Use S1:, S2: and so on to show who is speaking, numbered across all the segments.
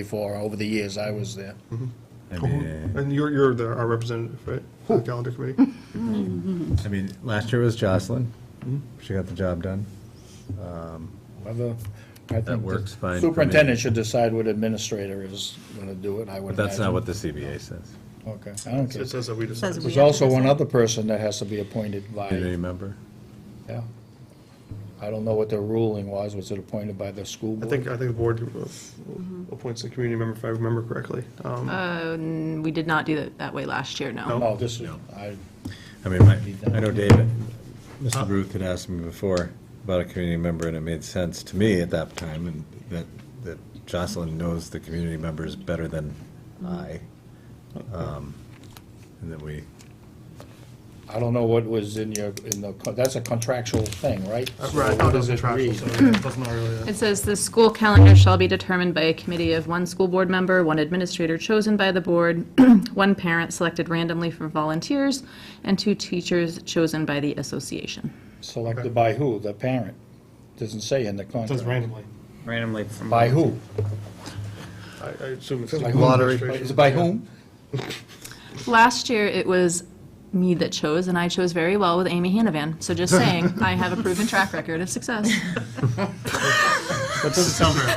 S1: before, over the years I was there.
S2: I mean,
S3: And you're, you're the, our representative, right? The calendar committee?
S2: I mean, last year was Jocelyn. She got the job done.
S1: Whether, I think
S2: works
S1: the
S2: fine for me.
S1: Superintendent should decide what administrator is gonna do it, I would
S2: But that's not
S1: imagine.
S2: what the CBA says.
S1: Okay, I don't care.
S3: It says that we decide.
S4: Says we-
S1: There's also one other person that has to be appointed by,
S2: Community member?
S1: yeah. I don't know what their ruling was, was it appointed by the school
S3: I
S1: board?
S3: think, I think the board uh,
S5: Mm-hmm.
S3: appoints a community member, if I remember correctly. Um,
S5: Uh,
S4: And we did not do it that way last year, no.
S1: Oh, this is, I,
S2: I mean, my- I know David, Mr. Ruth had asked me before about a community member, and it made sense to me at that time, and that, that Jocelyn knows the community members better than I. um, And that we,
S1: I don't know what was in your, in the, co- that's a contractual thing, right?
S3: Right, I
S1: So what
S3: thought it was
S1: does it
S3: contractual,
S1: read?
S3: so it doesn't really, uh,
S4: It says the school calendar shall be determined by a committee of one school board member, one administrator chosen by the board, one parent selected randomly from volunteers, and two teachers chosen by the association.
S1: Selected by who? The parent? Doesn't say in the
S3: it says
S1: contract.
S3: randomly.
S6: randomly from.
S1: By who?
S3: I, I assume it's.
S1: By
S3: the
S1: whom?
S3: lottery.
S1: Is it by whom?
S4: Last year, it was me that chose, and I chose very well with Amy Hanavan. So just saying, I have a proven track record of success.
S3: That doesn't sound very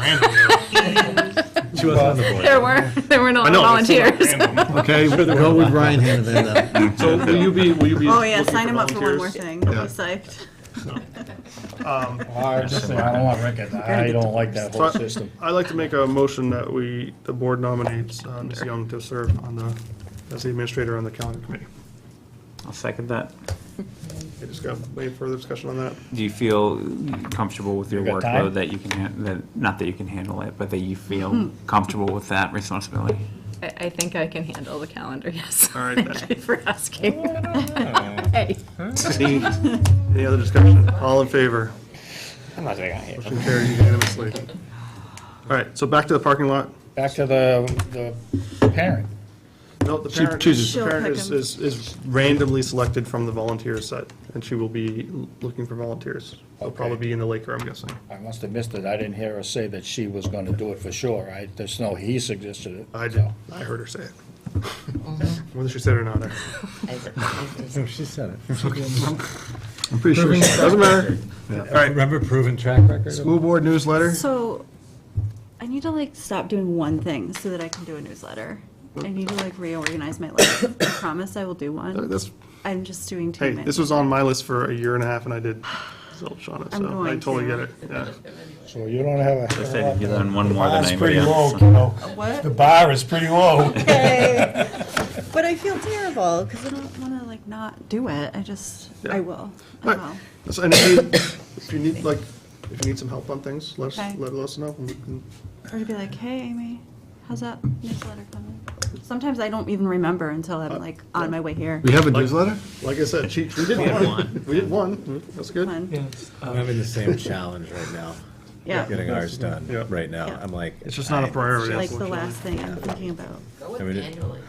S3: random. though.
S2: she wasn't on the board.
S4: There were, there were no
S3: I know, that sounds like
S4: volunteers.
S3: random.
S2: Okay, go with Ryan Hanavan then.
S3: So will you be, will you be?
S5: Oh, yeah,
S3: looking
S5: sign him up for one more
S3: volunteers?
S5: thing. He'll be psyched.
S1: I just say, I don't want Rick, I don't like that whole
S3: So
S1: system.
S3: I- I'd like to make a motion that we, the board nominates uh, Ms. Young to serve on the, as the administrator on the calendar committee.
S6: I'll second that.
S3: I just got any further discussion on that?
S6: Do you feel comfortable with your
S1: You got time?
S6: workload that you can, han- that, not that you can handle it, but that you feel comfortable with that responsibility?
S4: I, I think I can handle the calendar, yes.
S3: All right,
S4: Thank
S3: then.
S4: you for asking. Hey.
S3: Any any other discussion? All in favor?
S6: I'm not taking it.
S3: Motion carries unanimously. All right, so back to the parking lot.
S1: Back to the, the parent.
S3: No, the parent,
S2: chooses.
S3: the parent is,
S5: She'll pick
S3: is is randomly selected from the volunteer set, and she will be l- looking for volunteers. They'll probably
S1: Okay.
S3: be in the Laker, I'm guessing.
S1: I must have missed it, I didn't hear her say that she was gonna do it for sure, I, there's no, he suggested it.
S3: I did, I heard her say it. Whether she said it or not, I-
S2: No, she said it.
S3: I'm pretty sure she said it. Doesn't matter. All right,
S2: Remember proven track record?
S3: school board newsletter.
S5: So, I need to like stop doing one thing so that I can do a newsletter. I need to like reorganize my life. I promise I will do one.
S3: Uh, This,
S5: I'm just doing too
S3: hey,
S5: many.
S3: this was on my list for a year and a half, and I did zilch on it,
S5: I'm
S3: so I
S5: going
S3: totally
S5: to.
S3: get it. Yeah.
S1: So you don't have a.
S6: I said you learn one more than
S1: That's
S6: anybody
S1: pretty low,
S6: else.
S1: kiddo. The
S5: What?
S1: bar is pretty low.
S5: Okay. But I feel terrible because I don't want to like not do it. I just,
S3: Yeah.
S5: I will. I
S3: Right.
S5: will.
S3: So, And if you, if you need, like, if you need some help on things, let us,
S5: Okay.
S3: let us know. and we can-
S5: Or to be like, hey, Amy, how's that newsletter coming? Sometimes I don't even remember until I'm like on my way here.
S2: have a newsletter?
S3: Like I said, she, we did one. We did one, that's good.
S5: One.
S2: I'm having the same challenge right now,
S5: Yeah,
S2: getting ours done
S3: Yeah.
S2: right now.
S5: Yeah.
S2: I'm like.
S3: It's just not a
S2: I-
S3: priority.
S5: like the
S3: unfortunately.
S5: last thing I'm thinking about.
S7: Go with
S2: I mean, it-
S7: annually.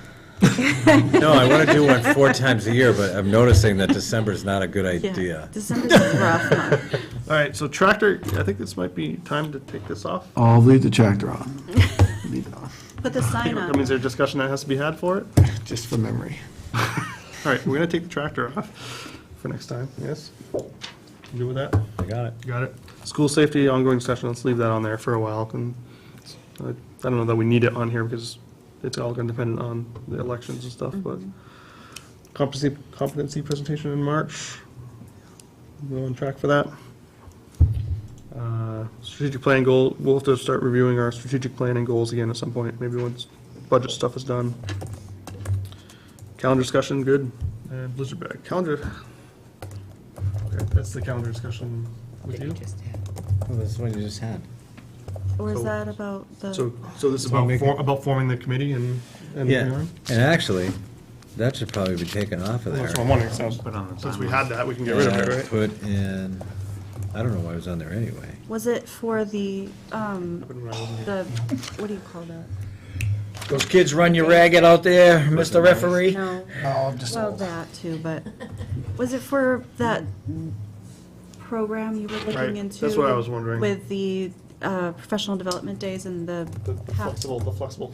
S2: No, I want to do one four times a year, but I'm noticing that December's not a good
S5: Yeah,
S2: idea.
S5: December's a rough month.
S3: All right, so tractor, I think this might be time to take this off.
S8: I'll leave the tractor on,
S5: Put the sign
S3: That means
S5: on.
S3: there's a discussion that has to be had for it.
S8: just for memory.
S3: All right, we're gonna take the tractor off for next time, yes? You Good with that?
S2: I got it.
S3: Got it. School safety ongoing session, let's leave that on there for a while. Can- I I don't know that we need it on here because it's all gonna depend on the elections and stuff, but competency, competency presentation in March. We're on track for that. Uh, Strategic plan goal, we'll have to start reviewing our strategic plan and goals again at some point, maybe once budget stuff is done. Calendar discussion, good. And Blizzard bag, calendar. Okay, that's the calendar discussion with you.
S2: Well, that's what you just had.
S5: Or is that about the,
S3: Oh. So, so this is
S2: So
S3: about,
S2: make
S3: for- about forming the committee and, and
S2: Yeah,
S3: everything?
S2: and actually, that should probably be taken off of there.
S3: That's what I'm wondering, so,
S6: Put on the
S3: since we
S6: timeline.
S3: had that, we can get rid of it,
S2: And
S3: right?
S2: Put in, I don't know why it was on there anyway.
S5: was it for the, um,
S3: Put it right in
S5: the, what do you call that?
S1: Those kids run you ragged out there, Mr. Referee.
S5: No,
S1: Oh, just.
S5: well, that too, but was it for that program you were
S3: Right,
S5: looking into?
S3: that's what I was wondering.
S5: With the uh, professional development days and the
S3: The
S5: half
S3: flexible, the flexible